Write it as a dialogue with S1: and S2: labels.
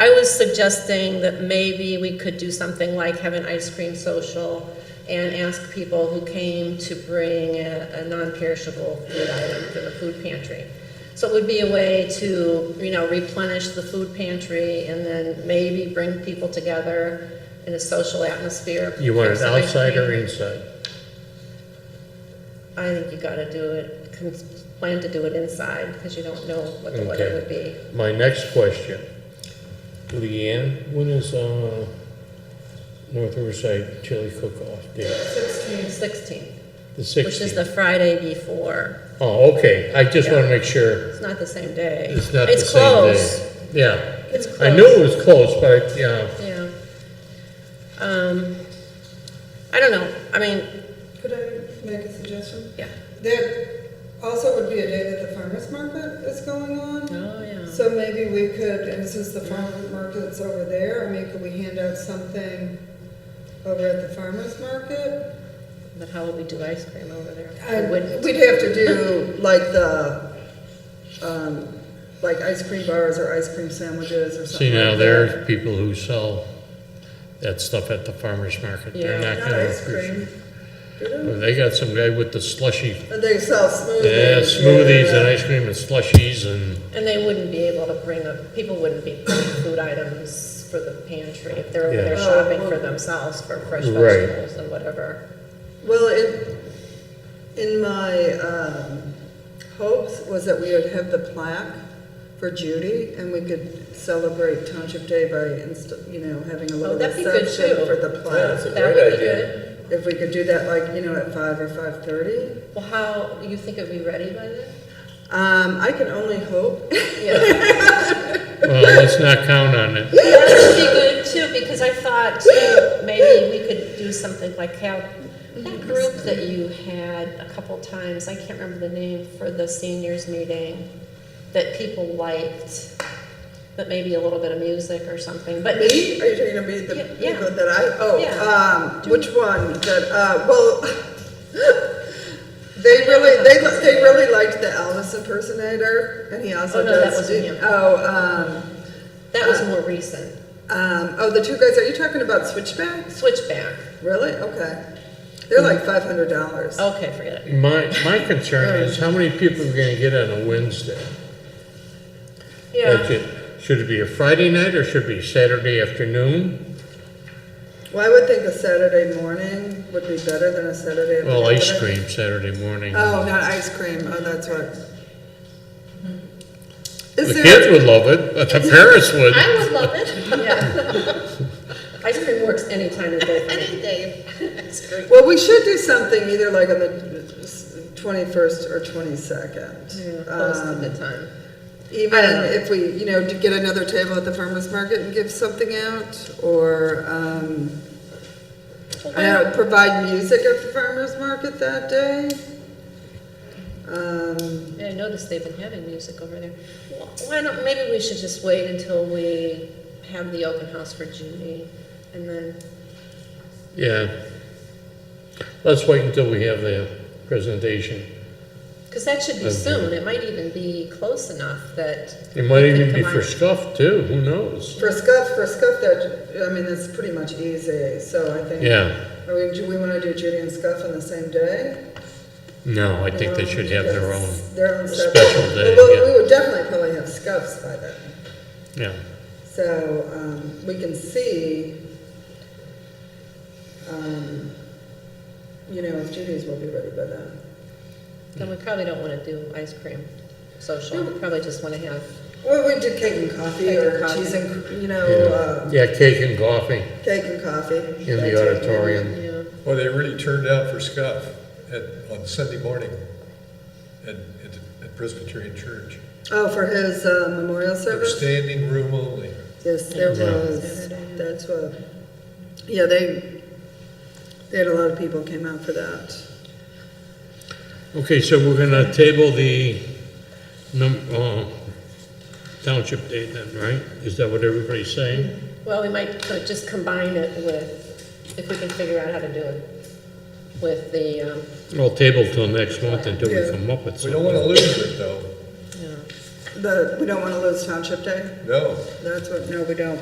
S1: I was suggesting that maybe we could do something like have an ice cream social and ask people who came to bring a, a non-perishable food item for the food pantry. So it would be a way to, you know, replenish the food pantry and then maybe bring people together in a social atmosphere.
S2: You want
S1: Have
S2: it
S1: some ice
S2: outside or
S1: cream.
S2: inside?
S1: I think you gotta do it, con- plan to do it inside, because you don't know what the weather
S2: Okay.
S1: would be.
S2: My next question, Leanne, when is, uh, North Riverside Chili Cook-Off Day?
S1: Sixteen. Sixteen,
S2: The
S1: which is the
S2: sixteenth?
S1: Friday before,
S2: Oh, okay, I just wanna make sure
S1: it's not the same day.
S2: it's not the same day.
S1: close.
S2: Yeah,
S1: It's close.
S2: I knew it was close, but, yeah,
S1: Yeah. Um, I don't know, I mean,
S3: Could I make a suggestion?
S1: yeah.
S3: There also would be a day that the farmer's market is going on.
S1: Oh, yeah.
S3: So maybe we could, and since the farmer's market's over there, I mean, could we hand out something over at the farmer's market?
S1: But how would we do ice cream over there?
S3: I-
S1: Uh, We wouldn't.
S3: We'd have to do like the, um, like ice cream bars or ice cream sandwiches or something.
S2: see now,
S3: like
S2: there
S3: that.
S2: are people who sell that stuff at the farmer's market, they're
S1: Yeah.
S2: not
S3: Not
S2: gonna
S3: ice cream.
S2: appreciate. Well, They got some guy with the slushy,
S3: And they sell smoothies.
S2: yeah, smoothies and
S3: yeah.
S2: ice cream and slushies and,
S1: And they wouldn't be able to bring, a- people wouldn't be bringing food items for the pantry if they're over
S2: Yeah.
S1: there shopping for themselves for fresh
S2: Right.
S1: vegetables and whatever.
S3: Well, it, in my um, hopes was that we would have the plaque for Judy and we could celebrate Township Day by, inst- you know, having a
S1: Oh,
S3: little
S1: that'd be good
S3: reception
S1: too.
S3: for the
S4: Yeah.
S3: plaque.
S4: a
S1: That
S4: great
S1: would be
S4: idea.
S1: good.
S3: If we could do that like, you know, at five or five-thirty.
S1: Well, how, you think it'd be ready by then?
S3: Um, I can only hope.
S1: Yeah,
S2: well, let's not count on it.
S1: that would be good too, because I thought too, maybe we could do something like how, that group that you had a couple times, I can't remember the name, for the seniors meeting, that people liked, but maybe a little bit of music or something, but.
S3: Me? Are you talking to me, the
S1: Yeah, yeah.
S3: people that I,
S1: Yeah.
S3: oh, um, which one? That, uh, well, they really, they, li- they really liked the Elvis impersonator, and he also
S1: Oh, no, that
S3: does.
S1: wasn't
S3: do-
S1: him.
S3: Oh, um,
S1: That was more recent.
S3: um, oh, the two guys, are you talking about Switchbacks?
S1: Switchback.
S3: Really? Okay. They're like
S1: Mm-hmm.
S3: five hundred dollars.
S1: Okay, forget it.
S2: My, my concern is how many people are gonna get on a Wednesday? That's
S1: Yeah.
S2: it. Should it be a Friday night or should it be Saturday afternoon?
S3: Well, I would think a Saturday morning would be better than a Saturday.
S2: Well, ice
S3: afternoon.
S2: cream Saturday morning.
S3: Oh, not ice cream, oh, that's right.
S2: The
S1: Mm-hmm.
S3: Is there?
S2: kids would love it, but the parents would.
S5: I would love it
S1: Yeah. Ice cream works any time of day for me.
S5: any day. That's great.
S3: Well, we should do something either like on the twenty-first or twenty-second. Um,
S1: Yeah, Close to the time.
S3: Even
S1: I don't know.
S3: if we, you know, to get another table at the farmer's market and give something out, or, um, I don't know, provide music at the farmer's market that day. Um,
S1: Yeah, I noticed they've been having music over there. Wh- Why don't, maybe we should just wait until we have the open house for Judy and then,
S2: Yeah. Let's wait until we have the presentation.
S1: because that should be
S2: Okay.
S1: soon. It might even be close enough that.
S2: It might
S1: we could
S2: even be for
S1: combine-
S2: scuff too, who knows?
S3: For scuff, for scuff, that, I mean, that's pretty much easy, so I think.
S2: Yeah,
S3: I mean, do we wanna do Judy and scuff on the same day? Um,
S2: no, I think they should have their own,
S3: Their own separate.
S2: special day,
S3: Well,
S2: yeah.
S3: we would definitely probably have scuffs by then.
S2: yeah.
S3: So um, we can see, um, you know, if Judy's will be ready by then.
S1: Then we probably don't want to do ice cream social. We probably just want to have,
S3: Well, we do cake and coffee
S1: Cake and
S3: or
S1: coffee.
S3: cheese and, you know,
S2: Yeah,
S3: uh,
S2: Yeah, cake and coffee
S3: cake and coffee.
S2: in the auditorium.
S1: you know,
S4: Well, they really turned out for scuff at, on Sunday morning at, at at Presbyterian Church.
S3: Oh, for his uh, memorial
S4: They were
S3: service?
S4: standing room only.
S3: Yes, there
S2: Yeah.
S3: was, that's what, yeah, they, they had a lot of people came out for that.
S2: Okay, so we're gonna table the num, uh, township day then, right? Is that what everybody's saying?
S1: well, we might co- just combine it with, if we can figure out how to do it with the, um,
S2: Well, table till next month until
S3: Yeah.
S2: we come up with
S4: We don't want to
S2: something.
S4: lose it, though.
S1: you know,
S3: The, we don't want to lose Township Day?
S4: No,
S3: That's what, no, we don't.